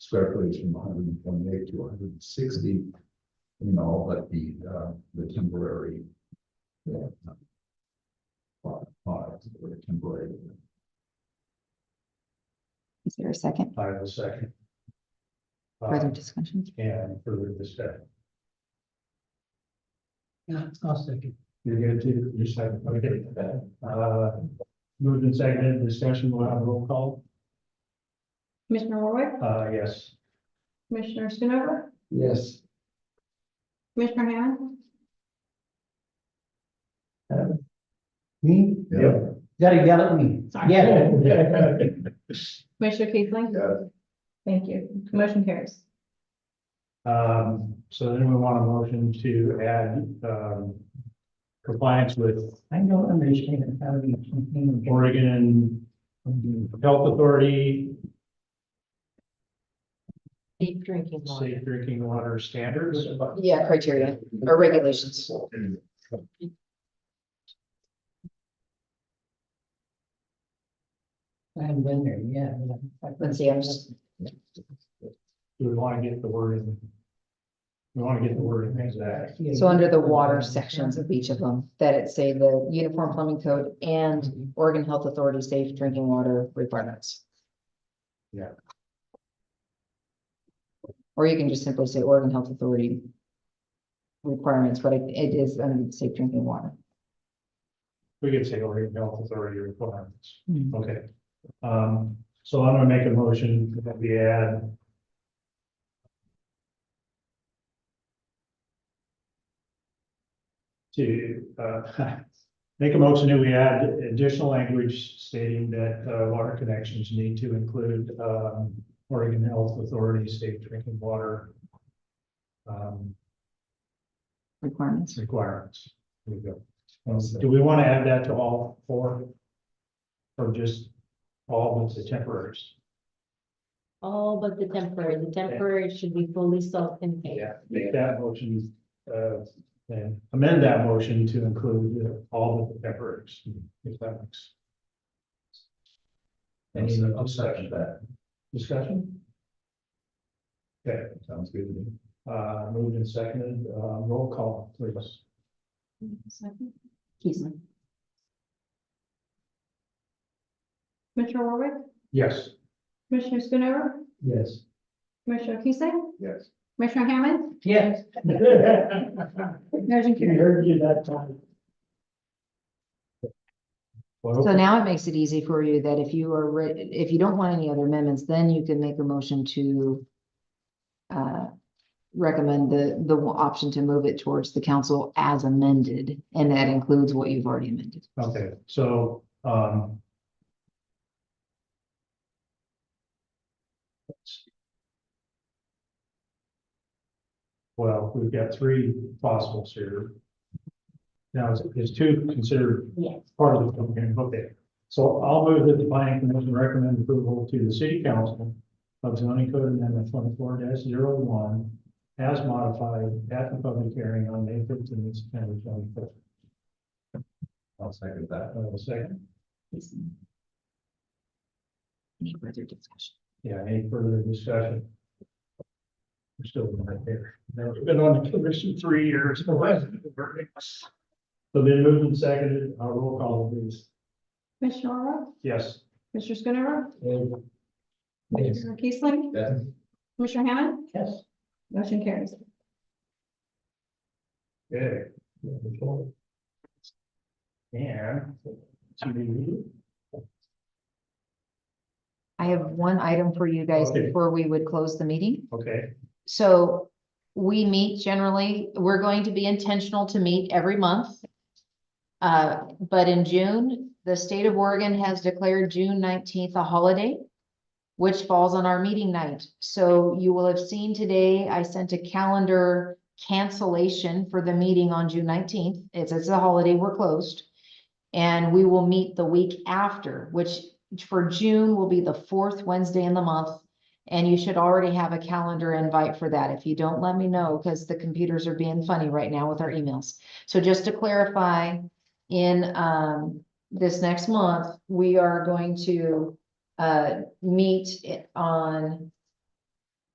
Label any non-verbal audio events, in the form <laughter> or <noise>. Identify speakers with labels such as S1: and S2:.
S1: square footage from hundred and twenty-eight to hundred and sixty. You know, but the, uh, the temporary. yeah, Lot, lot, or temporary.
S2: Is there a second
S3: I will second.
S2: further
S3: Uh,
S2: discussion?
S3: And further discussion.
S4: Yeah, I'll second.
S3: You're going to, you're second, okay. Uh, Moved and seconded, discussion, we'll have a roll call.
S5: Commissioner Warwick,
S3: Uh, yes.
S5: Commissioner Schoonover,
S3: Yes.
S5: Commissioner Hammond,
S4: Me?
S1: Yeah.
S4: Gotta yell at me.
S5: Sorry.
S4: Yeah.
S5: Commissioner Keithley.
S1: Yeah.
S5: Thank you. Motion carries.
S3: <laughs> Um, so then we want a motion to add, um, compliance with
S4: I don't understand how you can.
S3: Oregon Health Authority
S6: Deep drinking water.
S3: Safe Drinking Water Standards.
S6: Yeah, criteria or regulations.
S4: I haven't been there yet.
S6: Let's see, I'm just,
S3: We want to get the word in. We want to get the word in exact.
S6: so under the water sections of each of them, that it say the Uniform Plumbing Code and Oregon Health Authority Safe Drinking Water Requirements.
S3: Yeah.
S6: Or you can just simply say Oregon Health Authority requirements, but it it is under the safe drinking water.
S3: We could say Oregon Health Authority requirements.
S6: Hmm.
S3: Okay. Um, so I'm gonna make a motion that we add. To, uh, <laughs> make a motion that we add additional language stating that, uh, water connections need to include, um, Oregon Health Authority safe drinking water. Um,
S6: Requirements.
S3: requirements. There we go. Do we want to add that to all four? Or just all but the temporaries?
S7: All but the temporary, the temporary should be fully self-contained.
S3: Make that motion, uh, and amend that motion to include uh, all but the temporaries, if that makes
S1: Any obsession that
S3: discussion. Okay,
S1: sounds good to me.
S3: uh, moved and seconded, uh, roll call, please.
S6: Keesling.
S5: Commissioner Warwick,
S3: Yes.
S5: Commissioner Schoonover,
S3: Yes.
S5: Commissioner Keithley,
S1: Yes.
S5: Commissioner Hammond,
S3: <laughs>
S4: Yes.
S5: motion carries.
S4: heard you that time.
S6: So now it makes it easy for you that if you are, re- if you don't want any other amendments, then you can make a motion to uh, recommend the, the option to move it towards the council as amended, and that includes what you've already amended.
S3: Okay, so, um. Well, we've got three possibles here. Now, is, is two considered
S7: Yes.
S3: part of the, okay, okay, so I'll move that the planning commission recommend approval to the city council of zoning code amendment twenty-four one as modified at the public hearing on May fifteenth, September twenty-fifth.
S1: I'll second that.
S3: I will second.
S6: Any further discussion?
S3: Yeah, any further discussion? We're still not there. Now, we've been on the commission
S4: <laughs>
S3: three years. So then moved and seconded, our roll call please.
S5: Commissioner Warwick,
S3: Yes.
S5: Commissioner Schoonover,
S4: Yes.
S5: Commissioner Keithley,
S1: Yes.
S5: Commissioner Hammond,
S4: Yes.
S5: motion carries.
S3: Okay. And. to
S6: I have one item for you guys
S3: Okay.
S6: before we would close the meeting.
S3: the- Okay,
S6: So we meet generally, we're going to be intentional to meet every month. Uh, but in June, the state of Oregon has declared June nineteenth a holiday, which falls on our meeting night. So you will have seen today, I sent a calendar cancellation for the meeting on June nineteenth. It's, it's a holiday, we're closed. And we will meet the week after, which for June will be the fourth Wednesday in the month. And you should already have a calendar invite for that. If you don't, let me know, because the computers are being funny right now with our emails. So just to clarify, in um, this next month, we are going to uh, meet it on